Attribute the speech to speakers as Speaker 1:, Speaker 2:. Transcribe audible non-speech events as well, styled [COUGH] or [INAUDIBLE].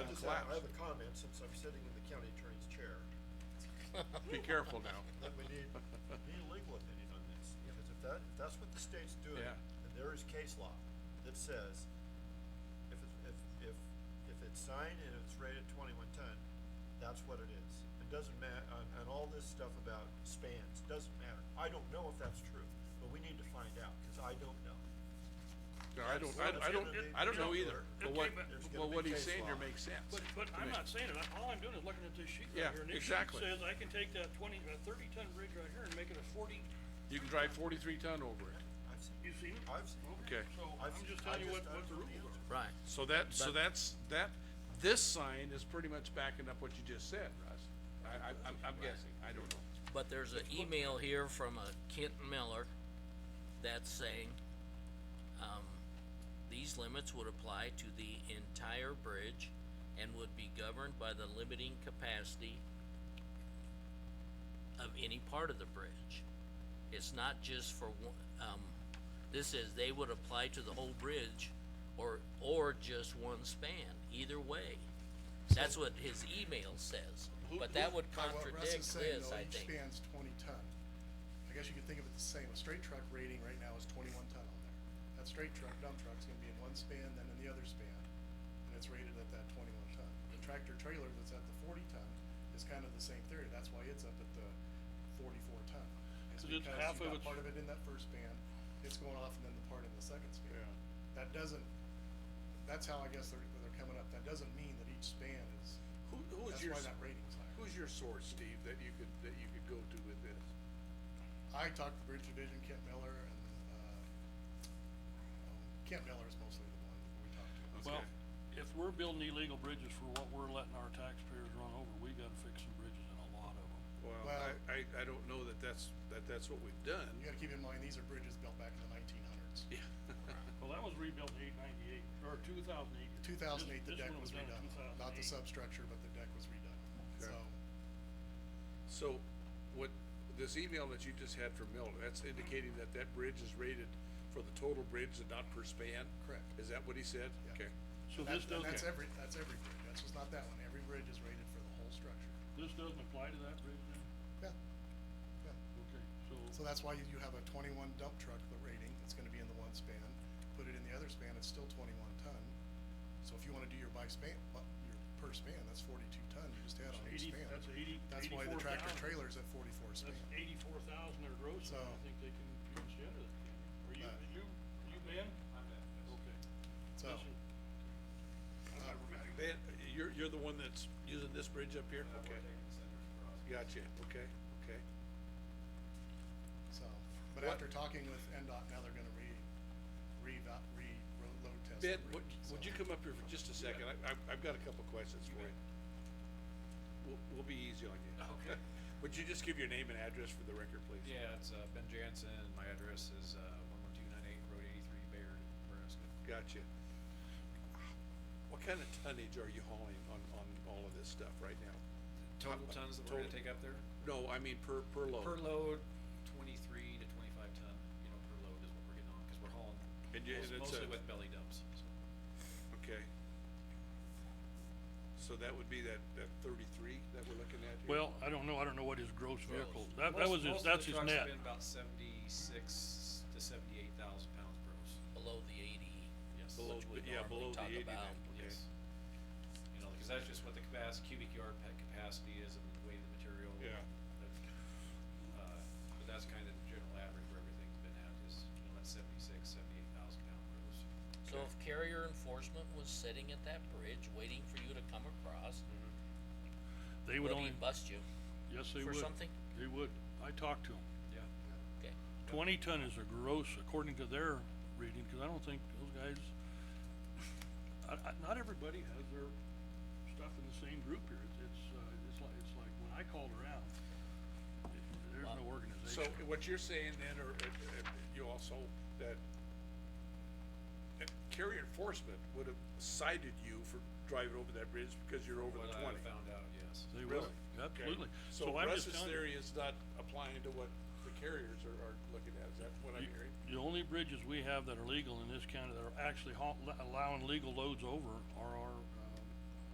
Speaker 1: collapse.
Speaker 2: I have a comment since I'm sitting in the county attorney's chair,
Speaker 1: Be careful now.
Speaker 2: that we need, need a legal opinion on this, because if that, if that's what the state's doing,
Speaker 1: Yeah.
Speaker 2: and there is case law that says if it's, if, if, if it's signed and it's rated twenty-one ton, that's what it is. It doesn't ma- and, and all this stuff about spans, doesn't matter. I don't know if that's true, but we need to find out, cause I don't know.
Speaker 1: No, I don't, I, I don't, I don't know either, but what, but what he's saying here makes sense.
Speaker 3: But, but
Speaker 1: to me.
Speaker 3: I'm not saying it, all I'm doing is looking at this sheet
Speaker 1: Yeah,
Speaker 3: right here, and this sheet
Speaker 1: exactly.
Speaker 3: says I can take that twenty, uh, thirty ton bridge right here and make it a forty,
Speaker 1: You can drive forty-three ton over it,
Speaker 2: I've seen,
Speaker 3: you seen it?
Speaker 2: I've seen.
Speaker 1: okay.
Speaker 3: So
Speaker 2: I've
Speaker 3: I'm
Speaker 2: seen-
Speaker 3: just
Speaker 2: I
Speaker 3: telling you what,
Speaker 2: just- I
Speaker 3: what the
Speaker 2: don't know
Speaker 3: rules
Speaker 2: the
Speaker 3: are.
Speaker 4: Right.
Speaker 1: So that, so
Speaker 4: But-
Speaker 1: that's, that, this sign is pretty much backing up what you just said, Russ. I, I, I'm, I'm guessing, I don't know.
Speaker 4: But there's an email here from a Kent Miller that's saying, um, these limits would apply to the entire bridge and would be governed by the limiting capacity of any part of the bridge. It's not just for one, um, this is, they would apply to the whole bridge or, or just one span, either way. That's what his email says, but that would
Speaker 5: By what Russ
Speaker 4: contradict
Speaker 5: is saying,
Speaker 4: this,
Speaker 5: though,
Speaker 4: I
Speaker 5: each
Speaker 4: think.
Speaker 5: span's twenty ton. I guess you could think of it the same, a straight truck rating right now is twenty-one ton on there. That straight truck dump truck's gonna be in one span, then in the other span, and it's rated at that twenty-one ton. The tractor trailer that's at the forty ton is kind of the same theory, that's why it's up at the forty-four ton.
Speaker 3: 'Cause
Speaker 5: It's
Speaker 3: it's
Speaker 5: because
Speaker 3: half
Speaker 5: you've
Speaker 3: of
Speaker 5: got
Speaker 3: it's-
Speaker 5: part of it in that first span, it's going off and then the part in the second span.
Speaker 3: Yeah.
Speaker 5: That doesn't, that's how I guess they're, they're coming up, that doesn't mean that each span is,
Speaker 1: Who, who is
Speaker 5: that's
Speaker 1: your,
Speaker 5: why
Speaker 1: s-
Speaker 5: that rating's higher.
Speaker 1: who's your source, Steve, that you could, that you could go to with this?
Speaker 5: I talked to Bridge Division, Kent Miller, and, uh, um, Kent Miller is mostly the one we talked to.
Speaker 3: Well, if we're building illegal bridges for what we're letting our taxpayers run over, we gotta fix some bridges and a lot of them.
Speaker 1: Well,
Speaker 5: Well-
Speaker 1: I, I, I don't know that that's, that that's what we've done.
Speaker 5: You gotta keep in mind, these are bridges built back in the nineteen hundreds.
Speaker 1: [LAUGHS] Yeah.
Speaker 3: Well, that was rebuilt in eight ninety-eight, or two thousand eight.
Speaker 5: Two thousand eight, the deck was redone, not the substructure, but the deck was redone,
Speaker 1: Okay.
Speaker 5: so,
Speaker 1: So, what, this email that you just had from Miller, that's indicating that that bridge is rated for the total bridge and not per span?
Speaker 5: Correct.
Speaker 1: Is that what he said?
Speaker 5: Yeah.
Speaker 1: Okay.
Speaker 3: So
Speaker 5: and
Speaker 3: this
Speaker 5: that, and that's
Speaker 3: doesn't,
Speaker 5: every, that's every bridge, that's just not that one, every bridge is rated for the whole structure.
Speaker 3: this doesn't apply to that bridge then?
Speaker 5: Yeah, yeah.
Speaker 3: Okay, so.
Speaker 5: So that's why you, you have a twenty-one dump truck, the rating, it's gonna be in the one span, put it in the other span, it's still twenty-one ton. So if you wanna do your by span, bu- your per span, that's forty-two ton, you just add on
Speaker 3: That's 80
Speaker 5: each span.
Speaker 3: that's 80
Speaker 5: That's why the tractor
Speaker 3: 84,000.
Speaker 5: trailer's at forty-four span.
Speaker 3: That's eighty-four thousand at Rosa, I
Speaker 5: So-
Speaker 3: think they can consider that, can't they? Are you,
Speaker 5: Right.
Speaker 3: you, you Ben? I'm Ben, Okay.
Speaker 5: So, Uh,
Speaker 3: That's it. I'm not remembering.
Speaker 1: Ben, you're, you're the one that's using this bridge up here? Okay. Gotcha, okay, okay.
Speaker 5: so, but
Speaker 1: What-
Speaker 5: after talking with NDOT, now they're gonna re, re, re, road load test.
Speaker 1: Ben,
Speaker 5: every-
Speaker 1: would, would
Speaker 5: so-
Speaker 1: you come up here for just a second? I, I've, I've got a couple questions for you. We'll, we'll be easy on you.
Speaker 6: Okay.
Speaker 1: Would you just give your name and address for the record, please?
Speaker 6: Yeah, it's uh, Ben Jansen, my address is uh, one one two nine eight, Road eighty-three, Bayard, Nebraska.
Speaker 1: Gotcha. What kind of tonnage are you hauling on, on all of this stuff right now?
Speaker 6: Total tons that we're
Speaker 1: Uh, Total-
Speaker 6: gonna take up there?
Speaker 1: No, I mean per, per load.
Speaker 6: Per load, twenty-three to twenty-five ton, you know, per load is what we're getting on, cause we're hauling
Speaker 1: And you-
Speaker 6: most-
Speaker 1: and it's a-
Speaker 6: mostly with belly dumps, so.
Speaker 1: Okay. So that would be that, that thirty-three that we're looking at here?
Speaker 3: Well, I don't know, I don't know what his gross vehicle, that, that was
Speaker 6: Most-
Speaker 3: his,
Speaker 6: most of the
Speaker 3: that's his
Speaker 6: trucks
Speaker 3: net.
Speaker 6: have been about seventy-six to seventy-eight thousand pounds gross,
Speaker 4: below the eighty,
Speaker 6: yes.
Speaker 1: Below,
Speaker 4: which we
Speaker 1: the- yeah,
Speaker 4: normally
Speaker 1: below the
Speaker 4: talk
Speaker 1: eighty then,
Speaker 4: about,
Speaker 1: okay.
Speaker 6: Yes. You know, cause that's just what the capacity, cubic yard pa- capacity is and the weight of the material.
Speaker 1: Yeah.
Speaker 6: That- Uh, but that's kind of the general average where everything's been at is, you know, that seventy-six, seventy-eight thousand pound gross.
Speaker 4: So if carrier enforcement was sitting at that bridge waiting for you to come across,
Speaker 3: They
Speaker 4: would
Speaker 3: would
Speaker 4: he
Speaker 3: only,
Speaker 4: bust you?
Speaker 3: yes, they
Speaker 4: for
Speaker 3: would.
Speaker 4: something?
Speaker 3: They would, I talked to him,
Speaker 6: Yeah.
Speaker 4: Okay,
Speaker 3: twenty ton is a gross according to their reading, cause I don't think those guys, I, I, not everybody has their stuff in the same group here, it's, it's, uh, it's like, it's like when I called around, it- there's no
Speaker 1: So
Speaker 3: organization.
Speaker 1: what you're saying then, or, uh, uh, you also, that uh, carrier enforcement would have cited you for driving over that bridge because you're over
Speaker 6: What
Speaker 1: the
Speaker 6: I
Speaker 1: twenty?
Speaker 6: found out, yes.
Speaker 3: They
Speaker 1: Really?
Speaker 3: will,
Speaker 1: Okay.
Speaker 3: absolutely.
Speaker 1: So
Speaker 3: I'm just
Speaker 1: Russ's
Speaker 3: telling you,
Speaker 1: theory is not applying to what the carriers are, are looking at, is that what I'm
Speaker 3: you-
Speaker 1: hearing?
Speaker 3: The only bridges we have that are legal in this county that are actually haul, allowing legal loads over are our, uh,